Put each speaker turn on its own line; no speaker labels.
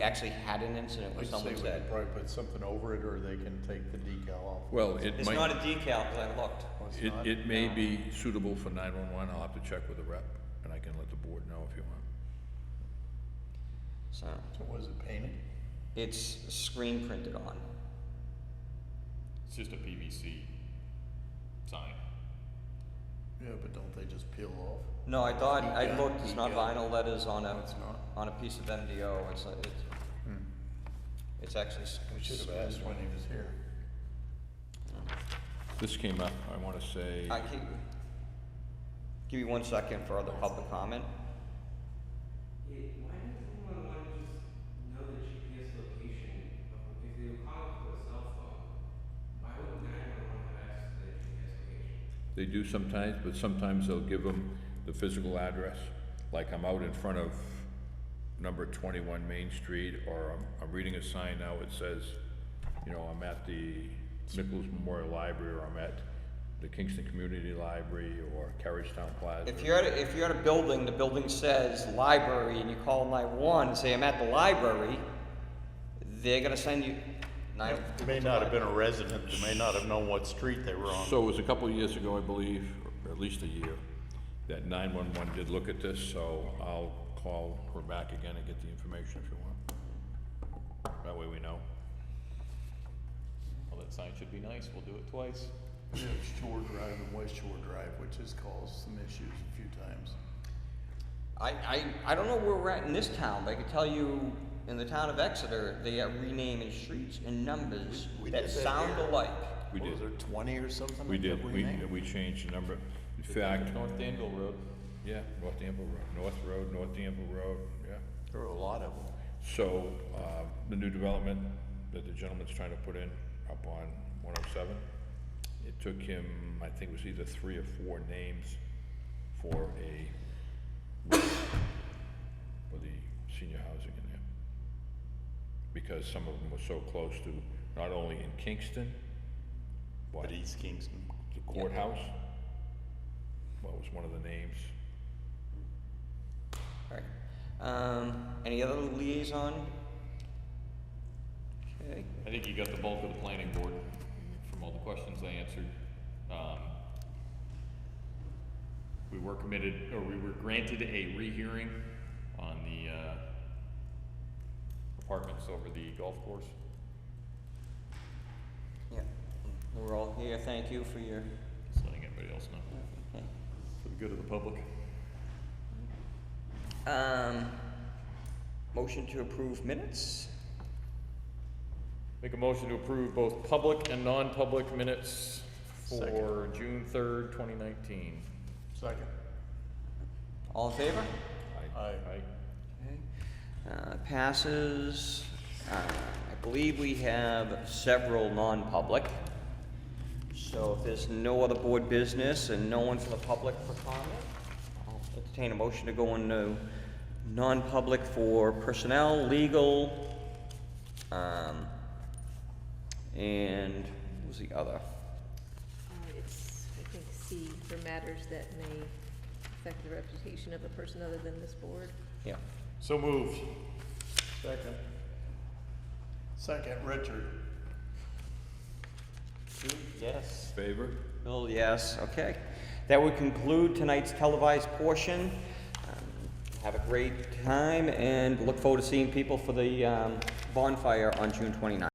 actually had an incident where
I'd say
someone
we
said,
could probably put something over it, or they can take the decal off.
Well, it
It's not a
might,
decal, because I looked.
Oh, it's
it,
not?
it may be suitable for nine-one-one, I'll have to check with the rep, and I can let the board know if you want.
so,
So Was it painted?
it's screen printed on.
It's just a PVC sign.
Yeah, but don't they just peel off?
No, I thought, I
Decal,
looked, it's not
decal.
vinyl letters on a,
It's not. Hmm.
on a piece of MDO, it's, a- it's, it's actually. s-
We should have asked when he was here.
This came up, I wanna say,
I can, give you one second for other public comment.
It, why does anyone want to just know the GPS location? of- If they were calling for a cell phone, why would nine one one have access to the GPS location?
they do sometimes, but sometimes they'll give them the physical address. Like I'm out in front of number twenty-one Main Street, or I'm, I'm reading a sign now, it says, you know, I'm at the Nichols Memorial Library, or I'm at the Kingston Community Library, or Carriagetown Plaza.
If you're at, a- if you're at a building, the building says library, and you call nine one and say, I'm at the library, they're gonna send you nine.
It may not have been a resident, they may not have known what street they were on.
So it was a couple of years ago, I believe, or at least a year, that 911 did look at this, so I'll call her back again and get the information if you want. That way we know.
Well, that sign should be nice. We'll do it twice.
Yeah, it's Shore Drive and West Shore Drive, which has caused some issues a few times.
I, I, I don't know where we're at in this town, but I can tell you, in the town of Exeter, they are renaming streets and numbers
We- we
that
did that
sound
here.
alike.
We
What
did.
Was there twenty or something?
We
like that
did, we,
named?
we changed the number. In fact,
North Danville Road.
yeah, North Danville Road, North Road, North Danville Road, yeah.
There were a lot of them.
So, uh, the new development that the gentleman's trying to put in up on 107, it took him, I think it was either three or four names for a, for the senior housing in there. Because some of them were so close to, not only in Kingston, but
But East Kingston.
the courthouse. What was one of the names?
Alright, um, any other liaison? Okay,
I think you got the bulk of the planning board from all the questions they answered. Um, We were committed, or we were granted a rehearing on the uh, apartments over the golf course.
yeah, we're all here, thank you for your,
Just letting everybody else know,
okay.
for the good of the public.
Um, motion to approve minutes?
Make a motion to approve both public and non-public minutes for
Second.
June third, twenty nineteen.
Second.
All in favor?
Aye.
Right?
Okay. Uh, passes, uh, I believe we have several non-public. So if there's no other board business and no one from the public for comment, I'll entertain a motion to go into non-public for personnel, legal, um, and what was the other?
Uh, It's, I think, C, for matters that may affect the reputation of a person other than this board.
Yeah.
So moved.
Second. Second, Richard.
Yes.
Favor?
Bill, yes, okay. That would conclude tonight's televised portion. Um, Have a great time and look forward to seeing people for the um, bonfire on June 29th.